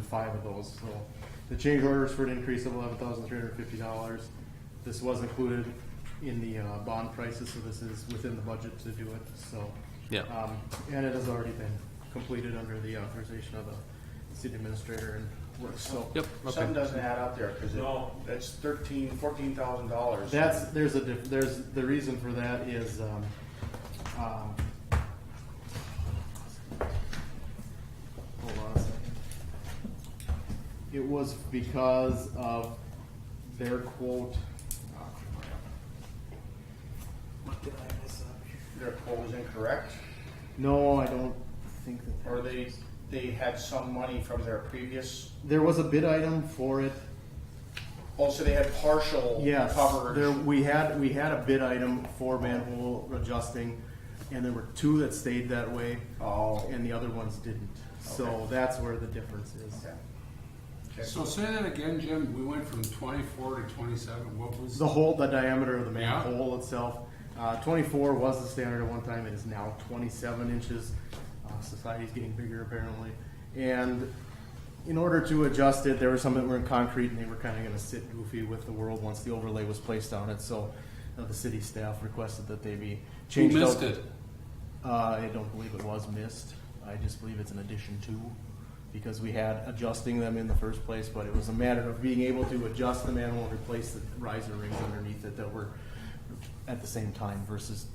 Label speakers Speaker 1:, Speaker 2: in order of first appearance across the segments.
Speaker 1: five of those, so. The change orders for an increase of eleven thousand three hundred fifty dollars. This was included in the, uh, bond prices, so this is within the budget to do it, so.
Speaker 2: Yeah.
Speaker 1: Um, and it has already been completed under the authorization of the city administrator and work, so.
Speaker 2: Yep,
Speaker 3: Something
Speaker 2: okay.
Speaker 3: doesn't add up there, cause it, that's thirteen, fourteen thousand dollars.
Speaker 1: That's, there's a, diff- there's, the reason for that is, um, um, hold on a second. It was because of their quote, oh, crap.
Speaker 3: Their quote was incorrect,
Speaker 1: no, I don't think that. that-
Speaker 3: or they, they had some money from their previous,
Speaker 1: There was a bid item for it,
Speaker 3: also they had partial
Speaker 1: yes. There,
Speaker 3: coverage.
Speaker 1: we had, we had a bid item for manhole adjusting, and there were two that stayed that way.
Speaker 3: Oh.
Speaker 1: and the other ones didn't. So
Speaker 3: Okay.
Speaker 1: that's where the difference is.
Speaker 3: Okay. Okay.
Speaker 4: So say that again, Jim, we went from twenty-four to twenty-seven, what was?
Speaker 1: The hole, the diameter of the
Speaker 4: Yeah.
Speaker 1: manhole itself, uh, twenty-four was the standard at one time, it is now twenty-seven inches. Uh, Society's getting bigger apparently, and in order to adjust it, there were some that were in concrete and they were kinda gonna sit goofy with the world once the overlay was placed on it, so uh, the city staff requested that they be
Speaker 4: Who
Speaker 1: changed out.
Speaker 4: missed it?
Speaker 1: Uh, I don't believe it was missed. I just believe it's an addition to, because we had adjusting them in the first place, but it was a matter of being able to adjust the manhole and replace the riser rings underneath it that were at the same time versus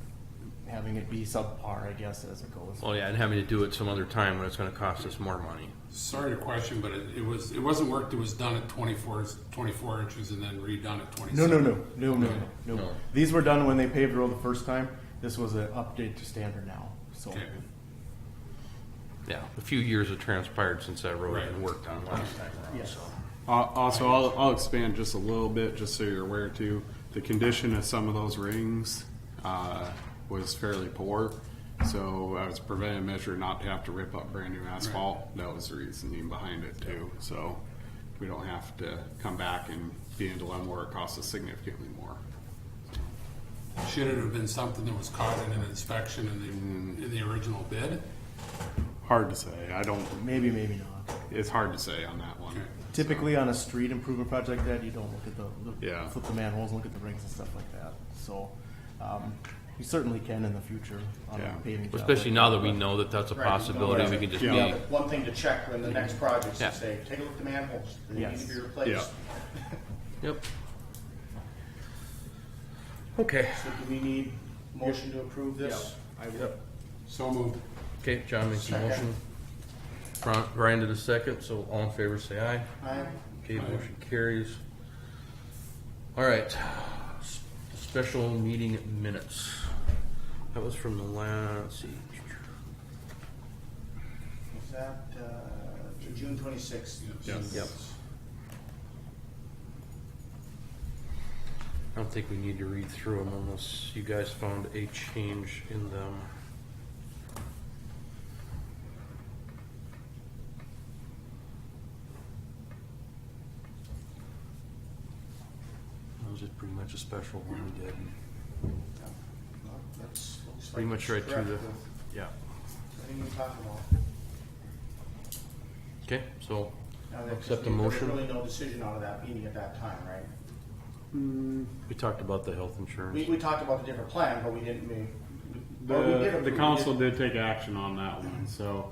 Speaker 1: having it be subpar, I guess, as it goes.
Speaker 2: Well, yeah, and having to do it some other time when it's gonna cost us more money.
Speaker 4: Sorry to question, but it, it was, it wasn't work that was done at 24 24 inches and then redone at
Speaker 1: No,
Speaker 4: twenty-seven.
Speaker 1: no, no, no, no, no, no.
Speaker 2: No.
Speaker 1: These were done when they paved the road the first time. This was an update to standard now, so.
Speaker 4: Okay.
Speaker 2: Yeah, a few years have transpired since that road had
Speaker 4: Right.
Speaker 2: been worked on last time around,
Speaker 1: Yes.
Speaker 2: so.
Speaker 5: Al- Also, I'll, I'll expand just a little bit, just so you're aware too. The condition of some of those rings uh, was fairly poor, so I was preventing measure not to have to rip up brand new asphalt. That was the reasoning behind it too. So we don't have to come back and be in a dilemma where it costs us significantly more.
Speaker 4: Should it have been something that was caught in an inspection in the, in the original bid?
Speaker 5: Hard to say. I don't.
Speaker 1: Maybe, maybe not.
Speaker 5: It's hard to say on that one.
Speaker 4: Okay.
Speaker 1: Typically on a street improvement project that you don't look at the,
Speaker 5: Yeah.
Speaker 1: the, flip the manholes, look at the rings and stuff like that. So, um, you certainly can in the future on a
Speaker 5: Yeah.
Speaker 1: paving job.
Speaker 2: Especially now that we know that that's a
Speaker 3: Right, we know
Speaker 2: possibility, we
Speaker 3: that.
Speaker 2: can just
Speaker 5: Yeah.
Speaker 2: be,
Speaker 3: But One thing to check when the next projects
Speaker 2: Yeah.
Speaker 3: is say, take a look at the manholes, they need
Speaker 1: Yes.
Speaker 3: to be replaced.
Speaker 2: yep. Okay,
Speaker 3: So do we need motion to approve this?
Speaker 4: So moved.
Speaker 2: okay, John makes a motion. Bri- Brian did a second, so all in favor say aye.
Speaker 3: Aye.
Speaker 2: Okay, motion carries. All right, S- special meeting minutes. That was from the last, let's see.
Speaker 3: Is that, uh, to June twenty-sixth?
Speaker 5: Yes.
Speaker 2: Yep. I don't think we need to read through them unless you guys found a change in them. That was just pretty much a special one we did.
Speaker 3: That's looks
Speaker 2: Pretty
Speaker 3: like
Speaker 2: much right to
Speaker 3: correct
Speaker 2: the,
Speaker 3: with
Speaker 2: yeah.
Speaker 3: Everything we talked about.
Speaker 2: Okay, so,
Speaker 3: Now that-
Speaker 2: Accept the
Speaker 3: there was
Speaker 2: motion.
Speaker 3: Really no decision out of that meeting at that time, right?
Speaker 2: we talked about the health
Speaker 3: We,
Speaker 2: insurance.
Speaker 3: we talked about the different plan, but we didn't make. or we did
Speaker 5: The, the
Speaker 3: approve it.
Speaker 5: council did take action on that one, so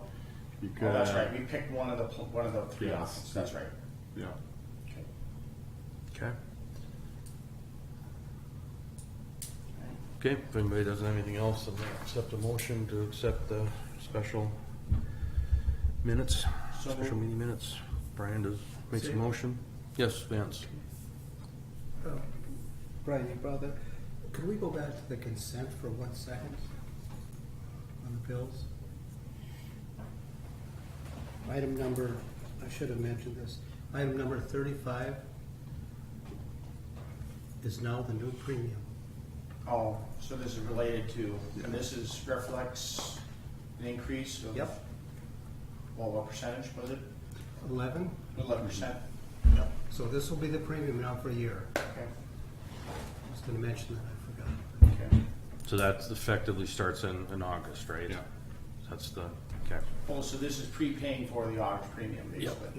Speaker 5: you could.
Speaker 3: Oh, that's right, we picked one of the, pl- one of the three
Speaker 5: Yes.
Speaker 3: options, that's right.
Speaker 5: Yeah.
Speaker 3: Okay.
Speaker 2: Okay. Okay, if anybody doesn't have anything else, then I'll accept a motion to accept the special minutes,
Speaker 3: So
Speaker 2: special
Speaker 3: moved.
Speaker 2: meeting minutes. Brian does, makes a
Speaker 6: Second.
Speaker 2: motion. Yes, Vance?
Speaker 6: Um, Brian, you brought that, could we go back to the consent for one second on the bills? Item number, I should have mentioned this, item number thirty-five is now the new premium.
Speaker 3: Oh, so this is related to, and this is reflects an increase of.
Speaker 6: Yep.
Speaker 3: Well, what percentage was it?
Speaker 6: Eleven,
Speaker 3: Eleven percent?
Speaker 6: so this will be the premium now for a year. I
Speaker 3: Okay.
Speaker 6: was gonna mention that, I forgot.
Speaker 3: Okay.
Speaker 2: So that effectively starts in, in August, right?
Speaker 5: Yeah.
Speaker 2: That's the, okay.
Speaker 3: Well, so this is prepaying for the audit premium,
Speaker 2: Yep.
Speaker 3: basically.